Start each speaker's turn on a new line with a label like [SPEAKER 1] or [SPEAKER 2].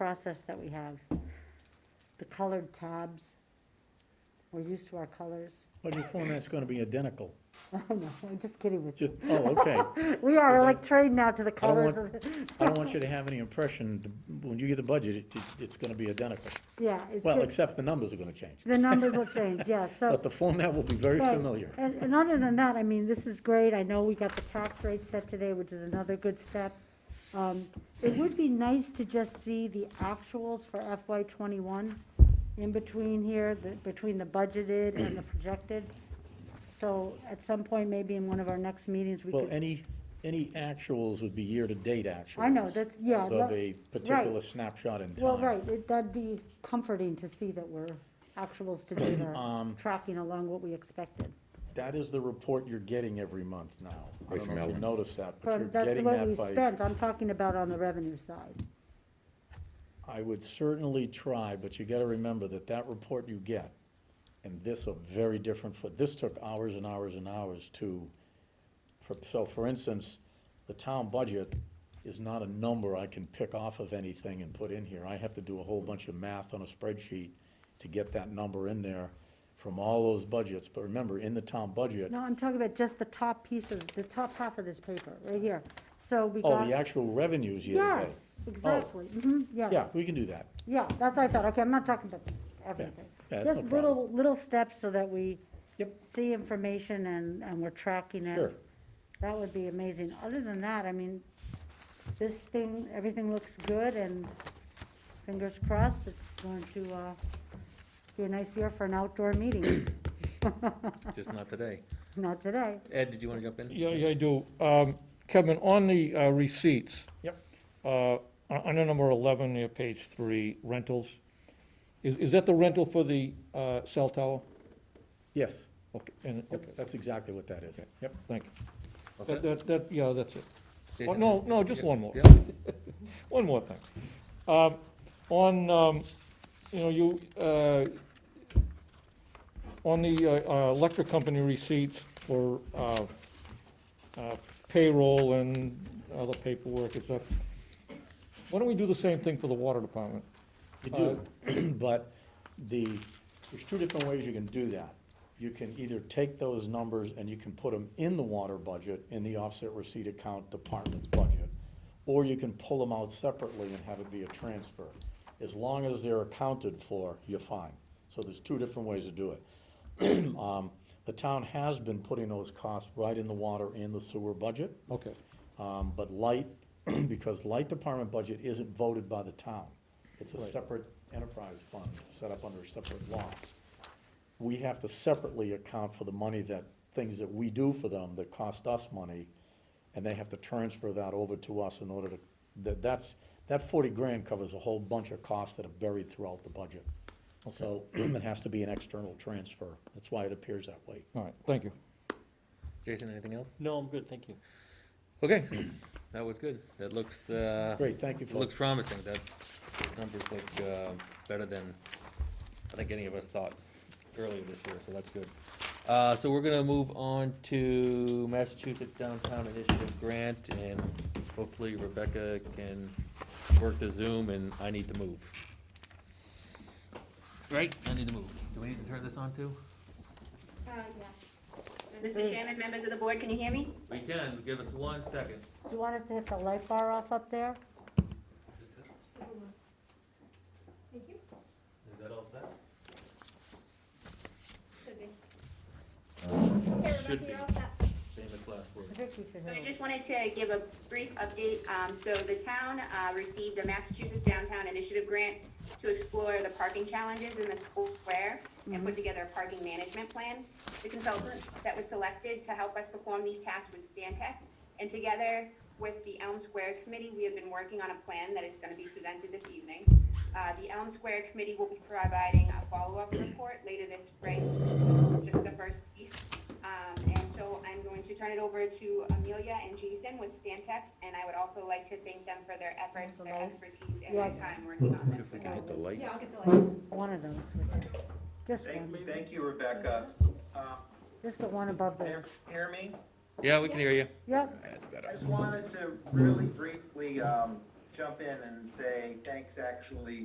[SPEAKER 1] process that we have. The colored tabs, we're used to our colors.
[SPEAKER 2] But your format's gonna be identical,
[SPEAKER 1] I know, I'm just kidding with you.
[SPEAKER 2] just, oh, okay.
[SPEAKER 1] We are
[SPEAKER 2] Is
[SPEAKER 1] like
[SPEAKER 2] that-
[SPEAKER 1] trained now to the
[SPEAKER 2] I don't
[SPEAKER 1] colors
[SPEAKER 2] want-
[SPEAKER 1] of, the-
[SPEAKER 2] I don't want you to have any impression, th- when you get the budget, it- it's, it's gonna be identical.
[SPEAKER 1] yeah. it's
[SPEAKER 2] Well,
[SPEAKER 1] good.
[SPEAKER 2] except the numbers are gonna change,
[SPEAKER 1] The numbers will change, yeah, so.
[SPEAKER 2] but the format will be very
[SPEAKER 1] Right.
[SPEAKER 2] familiar.
[SPEAKER 1] And, and other than that, I mean, this is great. I know we got the tax rate set today, which is another good step. Um, It would be nice to just see the actuals for FY twenty-one in between here, the, between the budgeted and the projected. So at some point, maybe in one of our next meetings, we
[SPEAKER 2] Well,
[SPEAKER 1] could,
[SPEAKER 2] any, any actuals would be year-to-date actuals.
[SPEAKER 1] I know, that's- yeah,
[SPEAKER 2] As Of
[SPEAKER 1] that-
[SPEAKER 2] a particular snapshot in time.
[SPEAKER 1] well, right, it- that'd be comforting to see that we're actuals to date are
[SPEAKER 2] Um,
[SPEAKER 1] tracking along what we expected.
[SPEAKER 2] That is the report you're getting every month now. I
[SPEAKER 3] Right
[SPEAKER 2] don't
[SPEAKER 3] from
[SPEAKER 2] know if you
[SPEAKER 3] Ellen.
[SPEAKER 2] noticed that, but
[SPEAKER 1] From,
[SPEAKER 2] you're
[SPEAKER 1] that's
[SPEAKER 2] getting
[SPEAKER 1] what we
[SPEAKER 2] that by,
[SPEAKER 1] spent. I'm talking about on the revenue side.
[SPEAKER 2] I would certainly try, but you gotta remember that that report you get and this are very different for, this took hours and hours and hours to, for- so for instance, the town budget is not a number I can pick off of anything and put in here. I have to do a whole bunch of math on a spreadsheet to get that number in there from all those budgets. But remember, in the town budget,
[SPEAKER 1] No, I'm talking about just the top piece of, the top half of this paper, right here. So we got.
[SPEAKER 2] oh, the actual revenues year to
[SPEAKER 1] Yes,
[SPEAKER 2] date.
[SPEAKER 1] exactly, hmm yes.
[SPEAKER 2] Yeah, we can do that.
[SPEAKER 1] Yeah, that's what I thought, okay, I'm not talking about everything.
[SPEAKER 2] Yeah, that's no
[SPEAKER 1] Just little, little steps so that we
[SPEAKER 2] Yep.
[SPEAKER 1] see information and, and we're tracking it.
[SPEAKER 2] Sure.
[SPEAKER 1] That would be amazing. Other than that, I mean, this thing, everything looks good and fingers crossed, it's going to, uh, be a nice year for an outdoor meeting.
[SPEAKER 3] Just not today.
[SPEAKER 1] Not today.
[SPEAKER 3] Ed, did you want to jump in?
[SPEAKER 4] Yeah, yeah, I do. Um, Kevin, on the uh, receipts.
[SPEAKER 2] Yep.
[SPEAKER 4] uh, on- Under number 11, near page three, rentals. Is is that the rental for the uh, cell tower?
[SPEAKER 2] Yes,
[SPEAKER 4] Okay, and, okay,
[SPEAKER 2] Yep, that's exactly what that is. Yep.
[SPEAKER 4] thank you.
[SPEAKER 3] All set?
[SPEAKER 4] That- That, that, yeah, that's it. Uh, Oh,
[SPEAKER 3] Jason?
[SPEAKER 4] No, no, just
[SPEAKER 3] Yeah,
[SPEAKER 4] one more.
[SPEAKER 3] yeah.
[SPEAKER 4] One more thing. Um, On, um, you know, you, uh, on the uh, uh, electric company receipts for uh, uh, payroll and other paperwork and stuff, why don't we do the same thing for the water department?
[SPEAKER 2] You do, but the, there's two different ways you can do that. You can either take those numbers and you can put them in the water budget, in the offset receipt account department's budget, or you can pull them out separately and have it be a transfer. As long as they're accounted for, you're fine. So there's two different ways to do it. Um, The town has been putting those costs right in the water and the sewer budget.
[SPEAKER 4] Okay,
[SPEAKER 2] Um, but light, because light department budget isn't voted by the town. It's a
[SPEAKER 4] Right.
[SPEAKER 2] separate enterprise fund, set up under a separate law. We have to separately account for the money that, things that we do for them that cost us money, and they have to transfer that over to us in order to, that, that's, that forty grand covers a whole bunch of costs that are buried throughout the budget. So it has to be an external transfer. That's why it appears that way.
[SPEAKER 4] all right, thank you.
[SPEAKER 3] Jason, anything else?
[SPEAKER 5] No, I'm good, thank you.
[SPEAKER 3] Okay, that was good. That looks, uh,
[SPEAKER 2] Great, thank you,
[SPEAKER 3] it looks
[SPEAKER 2] folks.
[SPEAKER 3] promising. That those numbers look, uh, better than I think any of us thought earlier this year, so that's good. Uh, so we're gonna move on to Massachusetts Downtown Initiative Grant, and hopefully Rebecca can work the Zoom, and I need to move. Right, I need to move. Do we need to turn this on too?
[SPEAKER 6] Mr. Chairman, members of the board, can you hear me?
[SPEAKER 3] We can, give us one second.
[SPEAKER 1] Do you want us to hit the light bar off up there?
[SPEAKER 3] Is that all set? Should be. Famous last
[SPEAKER 1] I
[SPEAKER 3] words.
[SPEAKER 1] think we should
[SPEAKER 6] So
[SPEAKER 1] hit
[SPEAKER 6] I
[SPEAKER 1] it.
[SPEAKER 6] just wanted to give a brief update. Um, So the town uh, received the Massachusetts Downtown Initiative Grant to explore the parking challenges in the school square and put together a parking management plan. The consultant that was selected to help us perform these tasks was Stantec. And together with the Elm Square Committee, we have been working on a plan that is going to be presented this evening. Uh, The Elm Square Committee will be providing a follow-up report later this spring, just the first piece. Um, and so I'm going to turn it over to Amelia and Jason with Stantec, and I would also like to thank them for their efforts, their expertise, and their
[SPEAKER 1] Yeah.
[SPEAKER 6] time working on this. with us.
[SPEAKER 3] the lights.
[SPEAKER 1] One of those, switches. just one,
[SPEAKER 7] Thank, thank you, Rebecca. Um,
[SPEAKER 1] just the one above there.
[SPEAKER 7] Hear hear me?
[SPEAKER 3] Yeah, we can hear you.
[SPEAKER 1] Yep,
[SPEAKER 7] I just wanted to really briefly um, jump in and say, thanks actually